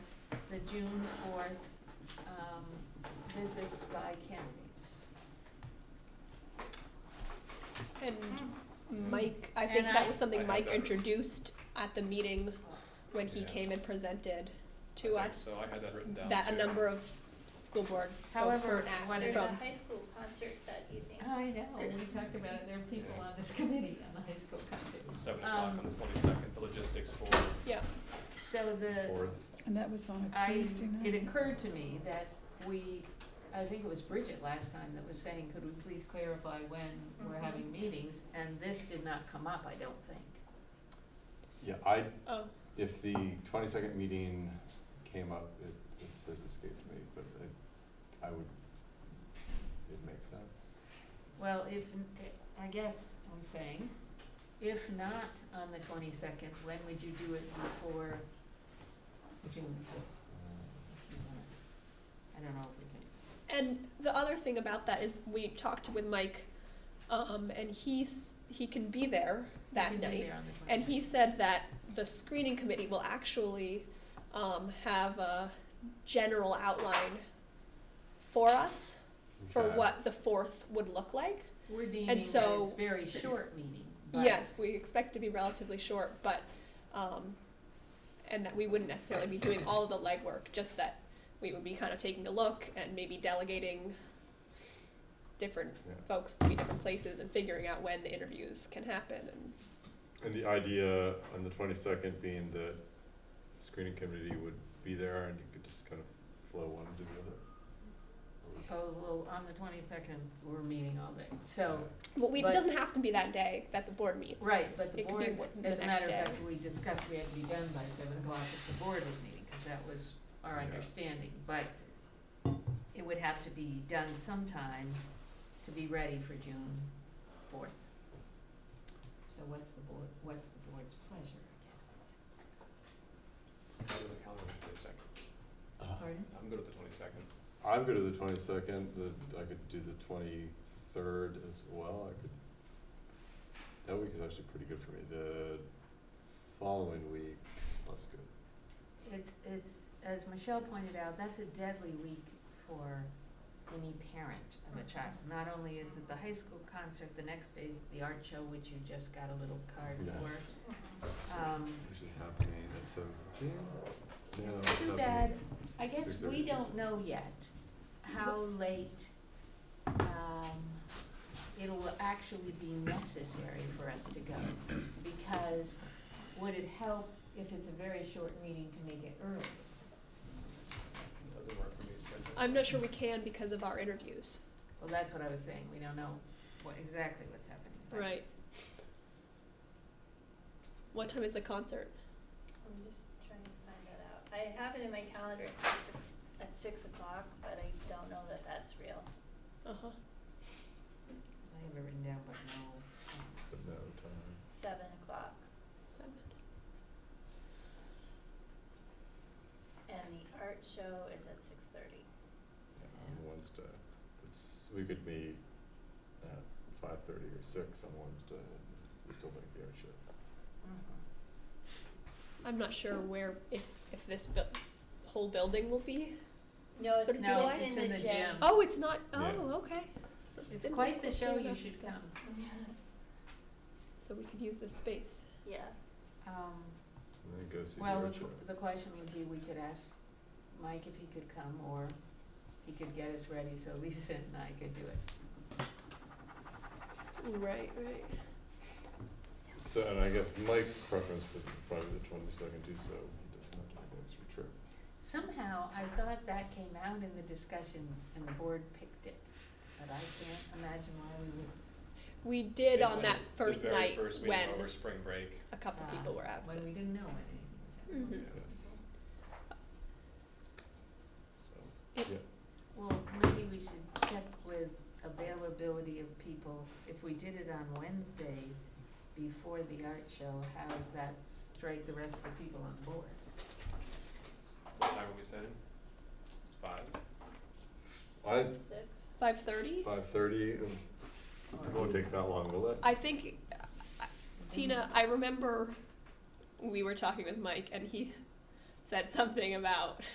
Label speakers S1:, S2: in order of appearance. S1: the June fourth, um, visits by candidates.
S2: And Mike, I think
S1: Hmm. And I-
S2: that was something
S3: I
S2: Mike
S3: had that.
S2: introduced at the meeting when he
S3: Yeah.
S2: came and presented
S3: I
S2: to
S3: think
S2: us.
S3: So I had that written down.
S2: That a
S3: too.
S2: number of school board folks
S1: However,
S2: were at
S1: what is
S4: There's a
S2: from.
S4: high school concert that evening.
S1: I know, we talked about it, there are people on this committee on the high school campus.
S3: Seven o'clock
S1: Um,
S3: on the twenty-second, the logistics for
S2: Yeah,
S1: So the,
S3: fourth.
S5: And that was on a
S1: I,
S5: Tuesday
S1: it
S5: night.
S1: occurred to me that we, I think it was Bridget last time that was saying, could we please clarify when we're
S4: Mhm.
S1: having meetings? And this did not come up, I don't think.
S6: Yeah, I,
S2: oh,
S6: if the twenty-second meeting came up, it, this has escaped me, but I, I would, it makes sense.
S1: Well, if, I guess I'm saying, if not on the twenty-second, when would you do it before June? I don't know if we can.
S2: and the other thing about that is we talked with Mike, um, and he's, he can be there that
S1: we can do
S2: night.
S1: there on the
S2: And
S1: 22nd.
S2: he said that the screening committee will actually um, have a general outline for us for
S6: Okay.
S2: what the fourth would look like.
S1: We're deeming that
S2: so-
S1: it's very short meeting, but.
S2: Yes, we expect to be relatively short, but um, and that we wouldn't necessarily be doing all of the legwork, just that we would be kind of taking a look and maybe delegating different
S6: Yeah.
S2: folks to be different places and figuring out when the interviews can happen and
S6: And the idea on the twenty-second being that the screening committee would be there and you could just kind of flow one to the other. Or
S1: Oh, well, on the twenty-second, we're meeting all day, so,
S6: was-
S2: well we,
S1: But-
S2: it doesn't have to be that day that the board meets
S1: right, but the
S2: It could be
S1: board,
S2: what- the
S1: as a matter of
S2: next
S1: fact, we discussed we had to be done by seven o'clock if the board was meeting, cause that was our
S6: Yeah.
S1: understanding, but it would have to be done sometime to be ready for June fourth. So what's the board, what's the board's pleasure?
S3: I'm good with the twenty-second.
S1: Pardon?
S3: I'm good with the twenty-second.
S6: I'm good at the twenty-second, the, I could do the twenty-third as well, I could, that week is actually pretty good for me, the following week, that's good.
S1: It's, it's, as Michelle pointed out, that's a deadly week for any parent of a child. Not only is it the high school concert, the next day's the art show, which you just got a little card
S6: Yes.
S1: for.
S4: Uh-huh.
S1: Um,
S6: Which is happening at seventeen? No,
S1: it's too
S6: happening-
S1: bad, I guess we
S6: 6:30.
S1: don't know yet how late, um, it'll actually be necessary for us to go. Because would it help if it's a very short meeting to make it early?
S3: Doesn't work for me, schedule.
S2: I'm not sure we can because of our interviews.
S1: Well, that's what I was saying, we don't know what, exactly what's happening, but.
S2: Right. What time is the concert?
S4: I'm just trying to find that out. I have it in my calendar at six, o- at six o'clock, but I don't know that that's real.
S2: Uh huh.
S1: I have it written down, but no. um,
S6: But no time.
S4: Seven o'clock
S2: Seven.
S4: and the art show is at six thirty.
S6: on Wednesday. It's, we could meet at five thirty or six on Wednesday and we still make the air show.
S2: I'm not sure where if if this bu- whole building will be.
S4: No,
S2: So
S4: it's,
S2: do you like-
S4: it's in the gym.
S2: Oh, it's not. Oh,
S6: Yeah.
S2: okay.
S1: It's
S2: Didn't
S1: quite the
S2: think
S1: show,
S2: we'll
S1: you
S2: see enough.
S1: should come.
S2: So we could use this space.
S4: Yes.
S1: Um,
S6: And then go see the
S1: well,
S6: air
S1: the,
S6: show.
S1: the question would be, we could ask Mike if he could come, or he could get us ready, so Lisa and I could do it.
S2: Right, right.
S6: So, and I guess Mike's preference would be probably the twenty-second too, so he doesn't have to make an extra trip.
S1: Somehow, I thought that came out in the discussion, and the board picked it, but I can't imagine why we would,
S2: We did
S3: It
S2: on
S3: went
S2: that first night
S3: The very first
S2: when
S3: meeting over spring break.
S2: a couple
S1: Ah,
S2: people were absent.
S1: when we didn't know anything was happening.
S2: Mhm.
S6: Yes.
S3: So,
S1: Well, maybe we should check with availability of people, if we did it on Wednesday before the art show, how does that strike the rest of the people on board?
S3: what time are we setting? Five?
S6: I,
S4: Six.
S2: Five thirty.
S6: five thirty, it won't take that long, will it?
S2: I think Tina, I remember we were talking with Mike and he said something about